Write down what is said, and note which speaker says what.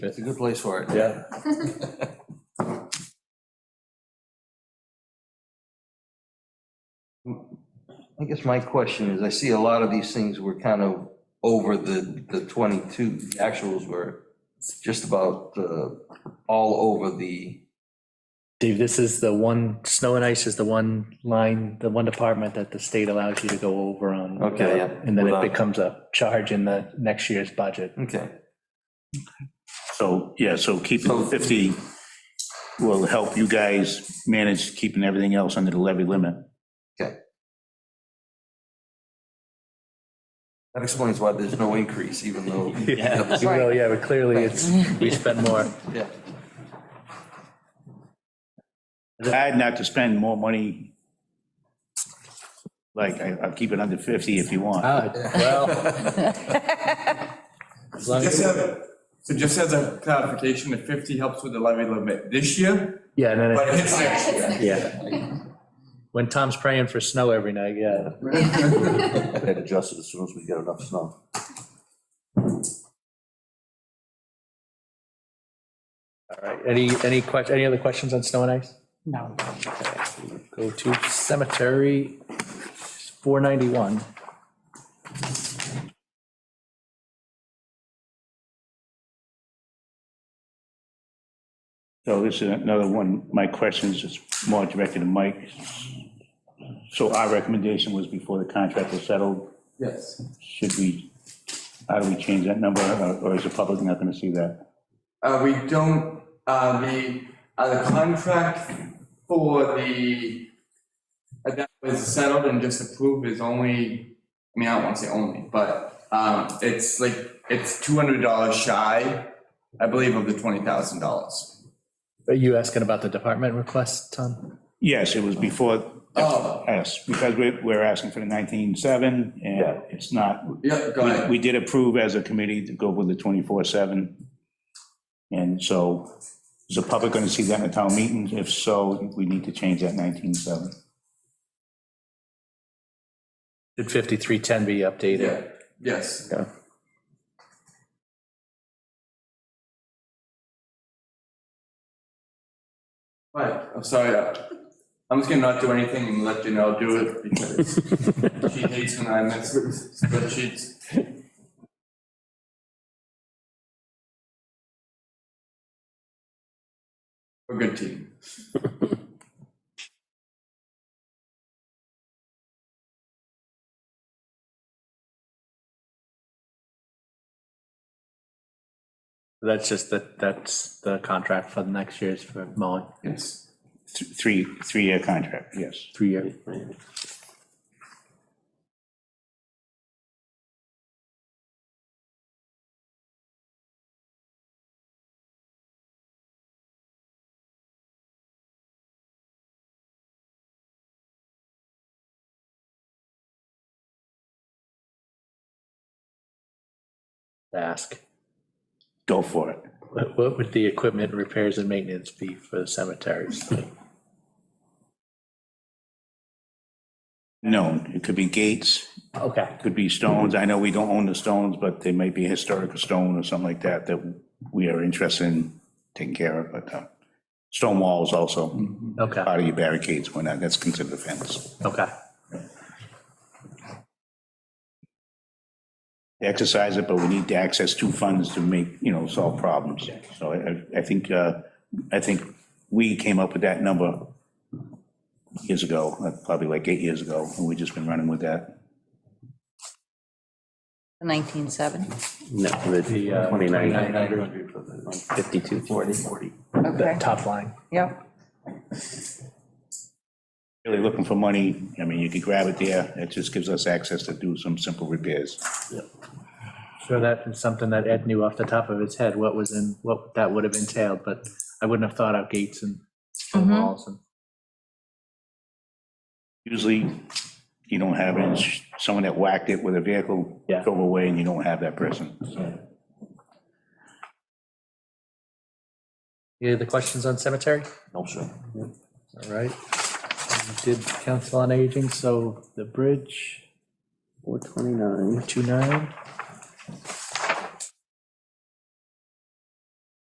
Speaker 1: It's a good place for it.
Speaker 2: Yeah.
Speaker 1: I guess my question is, I see a lot of these things were kind of over the, the 22, The actuals were just about uh, all over the,
Speaker 3: Dave, this is the one, snow and ice is the one line, the one department that the state allows you to go over on.
Speaker 1: Okay, yeah.
Speaker 3: And then it
Speaker 1: Without-
Speaker 3: becomes a charge in the next year's budget.
Speaker 1: okay.
Speaker 2: So, yeah, so keeping
Speaker 1: So-
Speaker 2: 50 will help you guys manage keeping everything else under the levy limit.
Speaker 1: That explains why there's no increase, even though.
Speaker 3: Yeah, you will, yeah, but clearly it's, we spend more.
Speaker 1: Yeah.
Speaker 2: Hard not to spend more money. Like, I- I'll keep it under 50 if you want.
Speaker 3: Ah, Well, as long
Speaker 4: Just
Speaker 3: as-
Speaker 4: have- So just as a clarification, the 50 helps with the levy limit this year,
Speaker 3: Yeah, and then,
Speaker 4: but
Speaker 3: it-
Speaker 4: it hits next year.
Speaker 3: yeah. When Tom's praying for snow every night, yeah.
Speaker 1: Had adjusted as soon as we get enough snow.
Speaker 3: All right, any, any question, any other questions on snow and ice?
Speaker 5: No.
Speaker 3: Go to cemetery, 491.
Speaker 2: So this is another one, my questions is more directed to Mike. So our recommendation was before the contract was settled,
Speaker 4: Yes.
Speaker 2: should we, how do we change that number, or- or is the public not going to see that?
Speaker 4: Uh, we don't, uh, the, uh, the contract for the, uh, that was settled and just approved is only, I mean, I don't want to say only, but, um, it's like, it's $200 shy, I believe, of the $20,000.
Speaker 3: Are you asking about the department request, Tom?
Speaker 2: Yes, it was before
Speaker 4: Oh,
Speaker 2: Yes, because we- we're asking for the 19.7, and it's not,
Speaker 4: yeah, go
Speaker 2: we-
Speaker 4: ahead.
Speaker 2: we did approve as a committee to go with the 24/7. And so, is the public going to see that in a town meeting? If so, we need to change that 19.7.
Speaker 3: Should 5310 be updated?
Speaker 4: Yeah, yes.
Speaker 3: Yeah.
Speaker 4: Right, I'm sorry, uh, I'm just gonna not do anything and let Janelle do it because she hates when I mess with spreadsheets. We're a good team.
Speaker 3: That's just that, that's the contract for the next year's for mowing,
Speaker 4: Yes.
Speaker 2: Th- Three, three-year contract, yes.
Speaker 3: three-year. Ask,
Speaker 2: Go for it.
Speaker 3: what what would the equipment repairs and maintenance be for the cemeteries?
Speaker 2: No, it could be gates,
Speaker 3: Okay.
Speaker 2: could be stones. I know we don't own the stones, but they might be historical stone or something like that that we are interested in taking care of, but uh, stone walls also.
Speaker 3: Okay,
Speaker 2: part of your barricades, why not, that's considered a fence.
Speaker 3: okay.
Speaker 2: Exercise it, but we need to access two funds to make, you know, solve problems. So I, I- I think, uh, I think we came up with that number years ago, uh, probably like eight years ago, and we've just been running with that.
Speaker 5: 1970.
Speaker 6: No, the
Speaker 3: The, uh,
Speaker 6: 29,
Speaker 1: 900 for the
Speaker 6: 52.
Speaker 1: 40, 40.
Speaker 3: The
Speaker 5: Okay,
Speaker 3: top line.
Speaker 5: yep.
Speaker 2: Really looking for money, I mean, you could grab it there, it just gives us access to do some simple repairs.
Speaker 3: So that is something that Ed knew off the top of his head, what was in, what that would have entailed, but I wouldn't have thought out gates and stone
Speaker 5: Mhm.
Speaker 3: walls and.
Speaker 2: Usually, you don't have it, It's someone that whacked it with a vehicle,
Speaker 3: Yeah.
Speaker 2: drove away, and you don't have that person, so.
Speaker 3: Any other questions on cemetery?
Speaker 1: No, sure.
Speaker 3: All right. We Did council on aging, so the bridge,
Speaker 6: 429.
Speaker 3: 29.